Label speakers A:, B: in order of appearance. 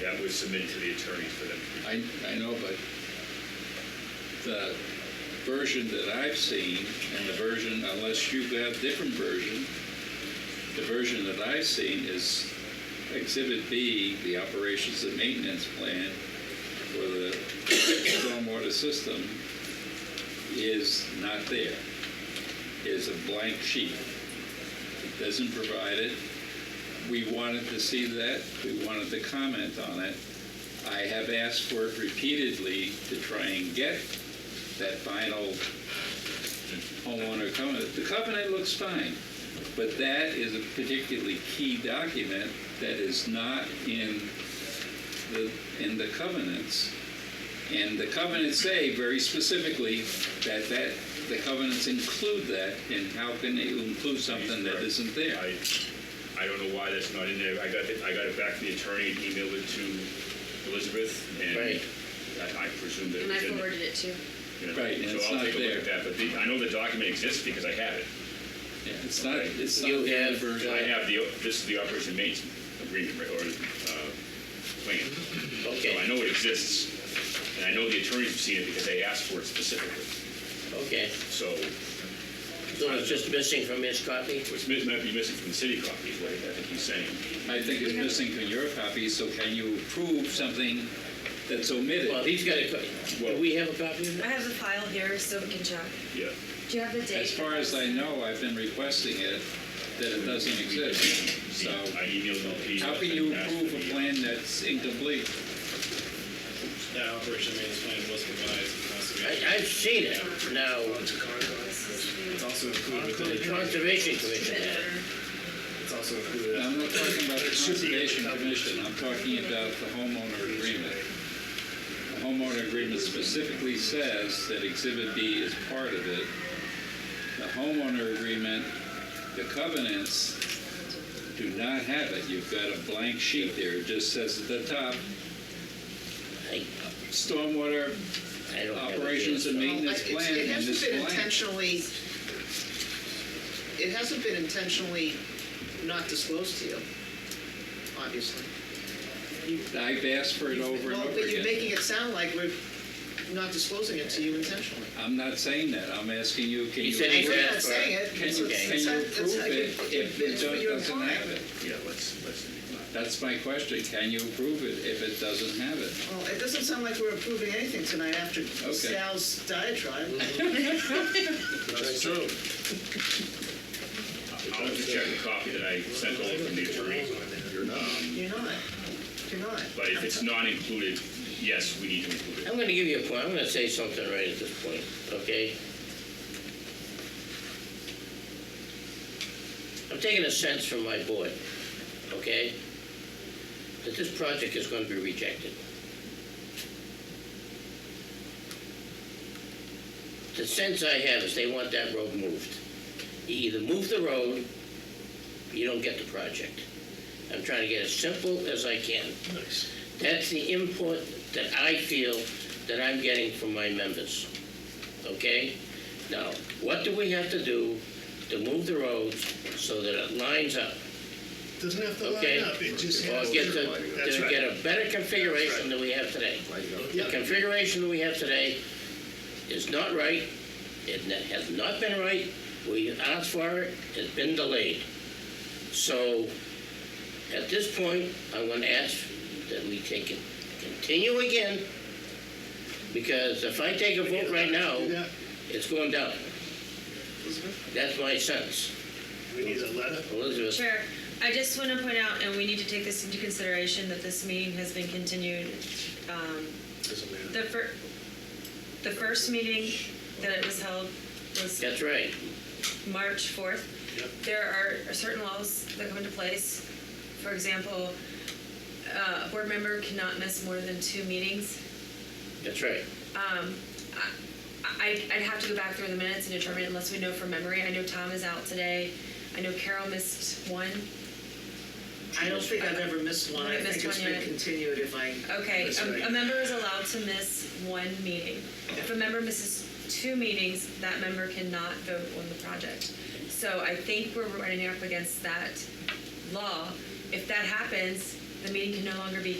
A: that was submitted to the attorney for them to
B: I, I know, but the version that I've seen and the version, unless you've got a different version, the version that I've seen is Exhibit B, the operations and maintenance plan for the stormwater system is not there. Is a blank sheet. It doesn't provide it. We wanted to see that. We wanted to comment on it. I have asked for it repeatedly to try and get that final homeowner covenant. The covenant looks fine, but that is a particularly key document that is not in the, in the covenants. And the covenants say very specifically that that, the covenants include that, and how can they include something that isn't there?
A: I, I don't know why that's not in there. I got it, I got it back from the attorney and emailed it to Elizabeth, and
C: Right.
A: I, I presume that it
D: And I
A: was in there.
D: forwarded it to.
A: you know.
B: Right, and
A: So
B: it's
A: I'll
B: not
A: take a look at
B: there.
A: that, but the- I know the document exists because I have it.
B: Yeah, It's not, it's not
C: You
B: there in the
C: have,
B: version.
A: I
C: uh,
A: have the, this is the operation maintenance agreement, right, or uh, plan. So I
C: Okay,
A: know it exists, and I know the attorneys have seen it because they asked for it specifically.
C: okay.
A: So
C: So it's just missing from his copy?
A: what's mi- might be missing from the city copy is what I think he's saying.
B: I think it's missing from your copy, so can you approve something that's omitted?
C: Well, he's got a, co- do we have a copy of
D: I
C: that?
D: have the file here so we can check.
A: Yeah.
D: Do you have the date?
B: As far as I know, I've been requesting it, that it doesn't exist. So
A: I emailed LP.
B: how can you approve a plan that's incomplete?
E: That operation maintenance plan was revised in conservation.
C: I, I've seen it now,
E: It's also included within
C: the
E: the,
C: Conservation Commission had it.
D: Better.
E: it's also included.
B: I'm not talking about the Conservation Commission, I'm talking about the homeowner agreement. The homeowner agreement specifically says that Exhibit B is part of it. The homeowner agreement, the covenants do not have it. You've got a blank sheet there, it just says at the top,
C: I,
B: stormwater
C: I don't have it.
B: operations and
F: Well,
B: maintenance
F: I- it's-
B: plan
F: It
B: and
F: hasn't
B: this
F: been
B: blank.
F: intentionally, it hasn't been intentionally not disclosed to you, obviously.
B: I've asked for it over and
F: Well,
B: over
F: but you're
B: again.
F: making it sound like we're not disclosing it to you intentionally.
B: I'm not saying that, I'm asking you, can
C: He
B: you?
C: said
F: I
C: he
F: know you're not
C: Exactly.
F: saying it.
B: Can you,
C: Okay.
B: can you approve it if it don't- doesn't have it?
A: Yeah, let's, let's.
B: That's my question, can you approve it if it doesn't have it?
F: Well, it doesn't sound like we're approving anything tonight after Sal's diatribe.
B: Mm-hmm.
E: That's true.
A: I'll have to check the copy that I sent over from the attorney. Um,
F: You're not, you're not.
A: But if it's not included, yes, we need to include it.
C: I'm gonna give you a point, I'm gonna say something right at this point, okay? I'm taking a sense from my board, okay? That this project is gonna be rejected. The sense I have is they want that road moved. You either move the road, you don't get the project. I'm trying to get as simple as I can. That's the input that I feel that I'm getting from my members, okay? Now, what do we have to do to move the roads so that it lines up,
G: Doesn't have to
C: okay?
G: line up, it just
C: Or
G: has to.
C: get the,
G: That's
C: to
G: right.
C: get a better configuration than we have today. The
G: Yeah.
C: configuration that we have today is not right, it ne- has not been right, we asked for it, it's been delayed. So, at this point, I'm gonna ask that we take it, continue again, because if I take a vote right
G: Do
C: now,
G: that.
C: it's going down. That's my sense,
G: We need a letter.
C: Elizabeth.
H: Chair, I just want to point out, and we need to take this into consideration, that this meeting has been continued. um, The fir, the first meeting that it was held was
C: That's right,
H: March 4th.
G: Yep.
H: There are certain laws that come into place. For example, uh, a board member cannot miss more than two meetings.
C: that's right.
H: I, I'd have to go back through the minutes and determine unless we know from memory. I know Tom is out today. I know Carol missed one.
F: I don't think I've ever missed one. I
H: Haven't
F: think
H: missed
F: it's
H: one
F: been
H: yet.
F: continued if I.
H: Okay,
F: That's right.
H: a, a member is allowed to miss one meeting. If a member misses two meetings, that member cannot vote on the project. So I think we're running up against that law. If that happens, the meeting can no longer be